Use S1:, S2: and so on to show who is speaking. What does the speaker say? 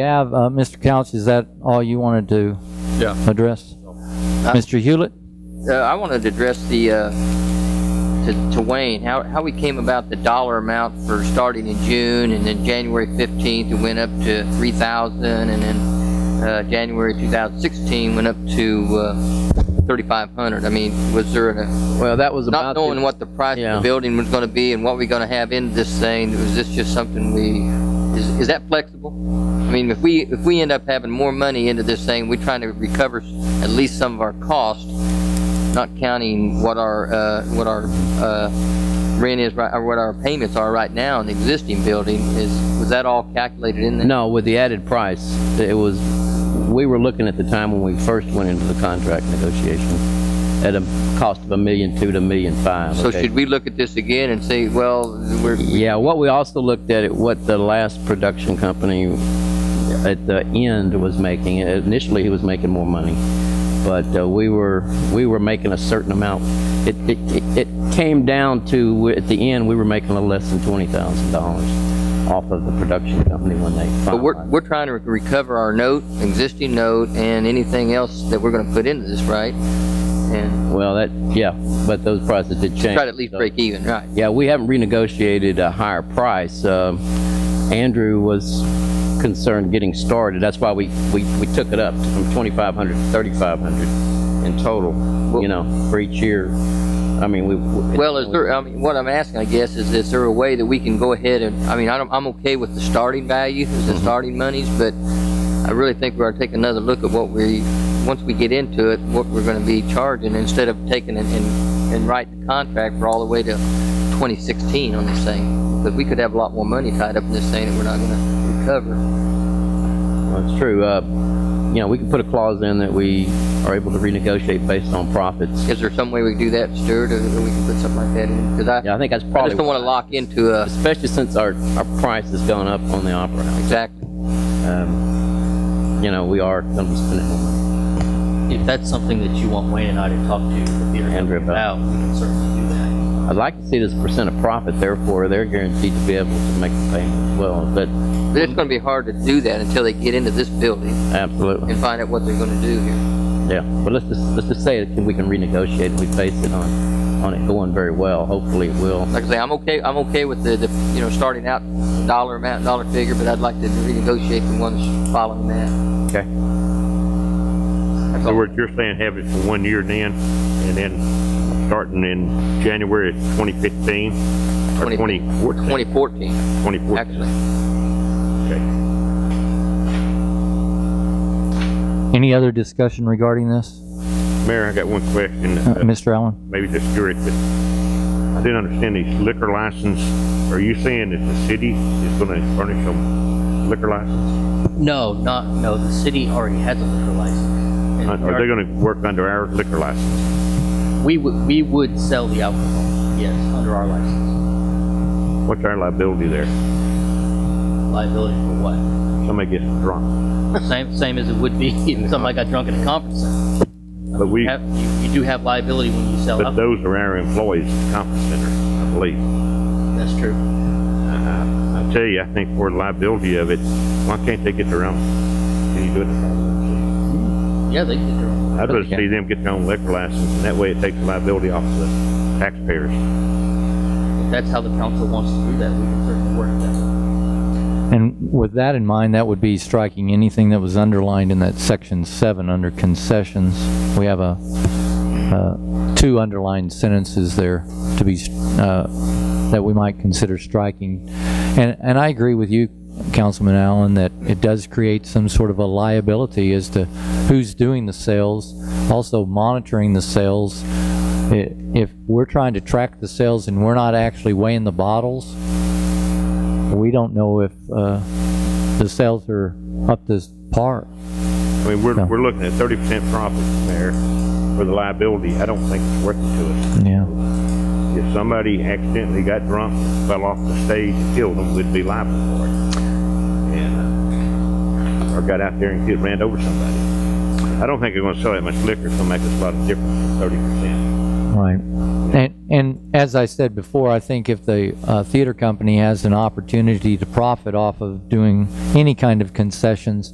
S1: Gav, uh, Mr. Couch, is that all you wanted to
S2: Yeah.
S1: address? Mr. Hewlett?
S3: Uh, I wanted to address the, uh, to, to Wayne, how, how we came about the dollar amount for starting in June and then January 15th, it went up to 3,000 and then, uh, January 2016 went up to, uh, 3,500. I mean, was there a,
S4: Well, that was
S3: not
S4: about, the-
S3: knowing what the price of
S4: Yeah.
S3: the building was gonna be and what we're gonna have in this thing, was this just something we, is, is that flexible? I mean, if we, if we end up having more money into this thing, we're trying to recover s- at least some of our cost, not counting what our, uh, what our, uh, rent is, right or what our payments are right now in the existing building, is, was that all calculated in there?
S4: no, with the added price, it was, we were looking at the time when we first went into the contract negotiation at a cost of a million two to a million five.
S3: So
S4: okay?
S3: should we look at this again and say, well, we're,
S4: Yeah, what we also looked at, at what the last production company at the end was making. Initially, he was making more money, but uh, we were, we were making a certain amount. It, it, it it came down to, at the end, we were making a little less than $20,000 off of the production company when they finalized.
S3: But we're, we're trying to recover our note, existing note, and anything else that we're gonna put into this, right? And
S4: Well, that, yeah, but those prices did change.
S3: try to at least break even, right?
S4: Yeah, we haven't renegotiated a higher price. Um, Andrew was concerned getting started. That's why we, we, we took it up from 2,500 to 3,500 in total, you know, for each year. I mean, we. we-
S3: Well, is there, I mean, what I'm asking, I guess, is is there a way that we can go ahead and, I mean, I'm, I'm okay with the starting value, the starting monies, but I really think we're gonna take another look at what we, once we get into it, what we're gonna be charging, instead of taking and, and, and writing the contract for all the way to 2016 on this thing. But we could have a lot more money tied up in this thing that we're not gonna recover.
S4: That's true. Uh, you know, we can put a clause in that we are able to renegotiate based on profits.
S3: Is there some way we can do that, Stuart, or or we can put something like that in? Because I,
S4: Yeah, I think that's
S3: I
S4: probably.
S3: just don't want to lock into a,
S4: Especially since our, our price has gone up on the Opera House.
S3: exactly.
S4: Um, you know, we are going to be spending more money.
S5: If that's something that you want Wayne and I to talk to the theater
S4: Andrew
S5: company
S4: about.
S5: about, we can certainly do that.
S4: I'd like to see this percent of profit, therefore, they're guaranteed to be able to make the payment as well, but
S3: But it's going to be hard to do that until they get into this building
S4: absolutely,
S3: and find out what they're going to do here.
S4: yeah. But let's just, let's just say that we can renegotiate, and we base it on, on it going very well, hopefully it will.
S3: Like I say, I'm okay, I'm okay with the, the, you know, starting out dollar amount, dollar figure, but I'd like to renegotiate the ones following that.
S4: Okay.
S3: That's
S6: other
S3: all.
S6: words, you're saying have it for one year then, and then starting in January of 2015, or 2014,
S3: 2014,
S6: 2014.
S3: actually.
S6: Okay.
S1: Any other discussion regarding this,
S6: Mayor, I got one question.
S1: Uh,
S6: Uh,
S1: Mr. Allen?
S6: maybe just Stuart, but I didn't understand these liquor license. Are you saying that the city is gonna furnish them liquor license?
S5: No, not, no, the city already has a liquor license. And
S6: Are they gonna work under our liquor license?
S5: We would, we would sell the alcohol, yes, under our license.
S6: What's our liability there?
S5: Liability for what?
S6: Somebody gets drunk.
S5: Same, same as it would be if somebody got drunk at a conference center.
S6: But we,
S5: You have- You, you do have liability when you sell
S6: but
S5: alcohol,
S6: those are our employees at the conference center, I believe.
S5: that's true.
S6: I tell you, I think for the liability of it, why can't they get their own? Can you do it?
S5: Yeah, they did their own.
S6: I'd rather see them get their own liquor license, and that way it takes the liability off the taxpayers.
S5: If that's how the council wants to do that, we can certainly work that.
S1: And with that in mind, that would be striking anything that was underlined in that section seven under concessions. We have a, uh, two underlined sentences there to be, uh, that we might consider striking. And, and I agree with you, Councilman Allen, that it does create some sort of a liability as to who's doing the sales, also monitoring the sales. I- If we're trying to track the sales and we're not actually weighing the bottles, we don't know if uh, the sales are up to par.
S6: I mean, we're,
S1: Yeah.
S6: we're looking at thirty percent profit there for the liability. I don't think it's worth it to us.
S1: Yeah.
S6: If somebody accidentally got drunk, fell off the stage and killed them, we'd be liable for it. And, uh, or got out there and killed, ran over somebody. I don't think they're gonna sell that much liquor, it's gonna make us a lot of difference, thirty percent.
S1: Right. And, And as I said before, I think if the uh, theater company has an opportunity to profit off of doing any kind of concessions,